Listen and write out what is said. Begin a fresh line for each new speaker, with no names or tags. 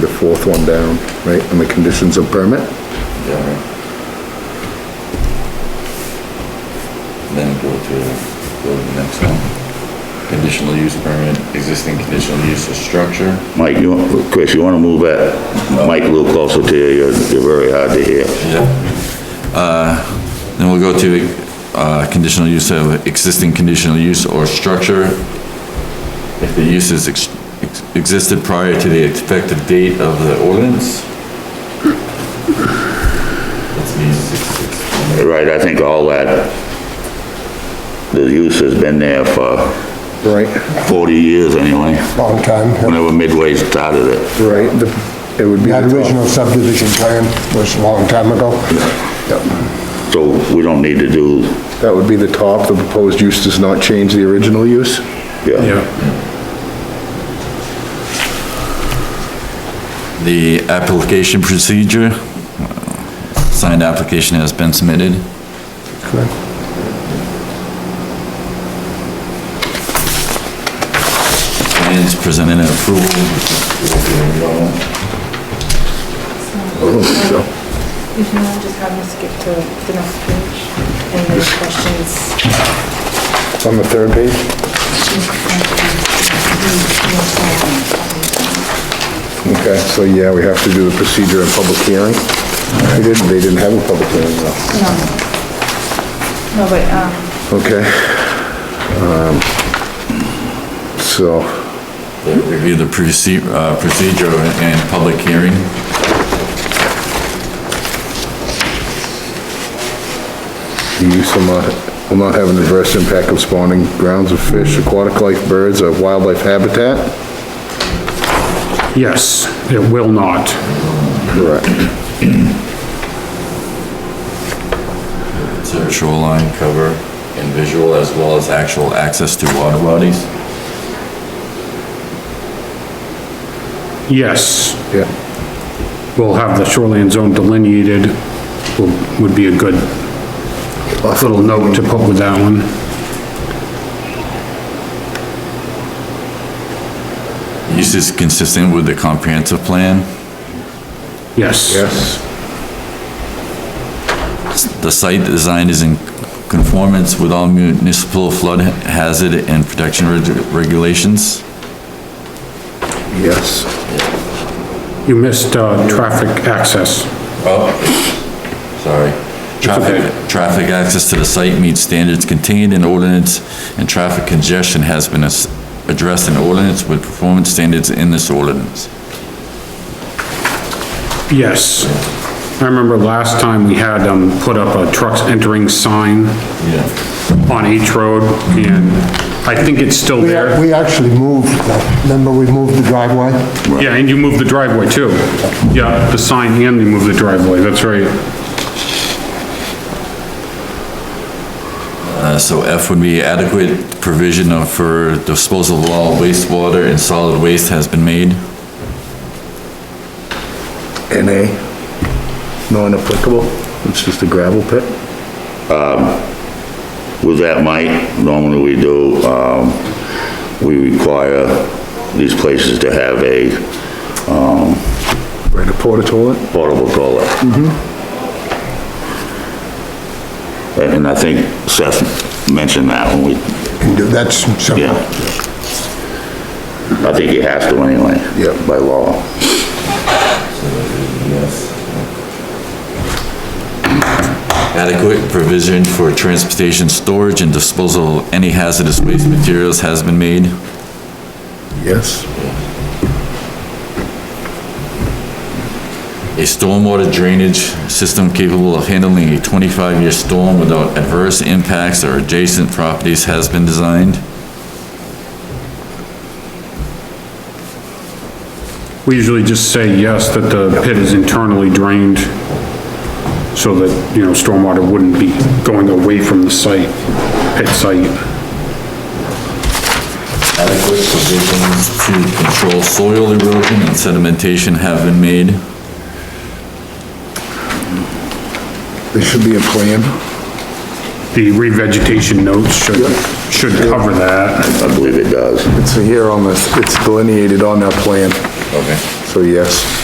fourth one down, right, on the conditions of permit?
Then go to, go to the next one. Conditional use permit, existing conditional use of structure.
Mike, you, want- Chris, you wanna move that mic a little closer to you, you're, you're very hard to hear.
Uh, Then we'll go to, uh, conditional use of, existing conditional use or structure. If the use is ex- ex- existed prior to the effective date of the ordinance. That's me, six, six.
Right, I think all that, the use has been there for
Right,
forty years anyway,
long time.
whenever Midway started it.
right, the, it would be.
That
the top.
original subdivision plan was a long time ago.
So we don't need to do,
That would be the top, the proposed use does not change the original use?
yeah.
The application procedure, signed application has been submitted. And it's presented and approval.
If not, just have me skip to the next page and there's questions.
It's on the third page? Okay, so yeah, we have to do the procedure and public hearing. They didn't, they didn't have a public hearing though.
No. No, but, um,
Okay. Um, So,
Review the proce- uh, procedure and public hearing.
the use will not, will not have an adverse impact of spawning grounds of fish, aquatic life, birds, or wildlife habitat?
Yes, it will not.
Correct.
So shoreline cover and visual as well as actual access to water bodies.
Yes,
Yeah,
we'll have the shoreline zone delineated, will- would be a good little note to put with that one.
Use is consistent with the comprehensive plan.
Yes.
yes.
The site design is in conformance with all municipal flood hazard and protection reg- regulations.
Yes.
You missed, uh, traffic access.
Sorry. Traffic, traffic access to the site meets standards contained in ordinance, and traffic congestion has been as- addressed in ordinance with performance standards in this ordinance.
Yes. I remember last time we had, um, put up a trucks entering sign
Yeah.
on each road, and I think it's still
We,
there.
we actually moved, the- remember we moved the driveway?
Yeah, and you moved the driveway too. Yeah, the sign and you moved the driveway, that's right.
Uh, so F would be adequate provision of, for disposal of all wastewater and solid waste has been made.
NA, non-applicable, it's just a gravel pit?
With that, Mike, normally we do, um, we require these places to have a
Right, a porta toilet?
portable toilet. And and I think Seth mentioned that when we,
And that's something,
yeah. I think he has to anyway.
Yeah.
By law.
Adequate provision for transportation, storage, and disposal of any hazardous waste materials has been made.
Yes.
A stormwater drainage system capable of handling a 25-year storm without adverse impacts or adjacent properties has been designed.
We usually just say yes, that the pit is internally drained so that, you know, stormwater wouldn't be going away from the site, pit site.
Adequate provisions to control soil erosion and sedimentation have been made.
There should be a plan.
The revegetation notes should, should cover that.
I believe it does.
It's here on this, it's delineated on that plan,
Okay.
so yes.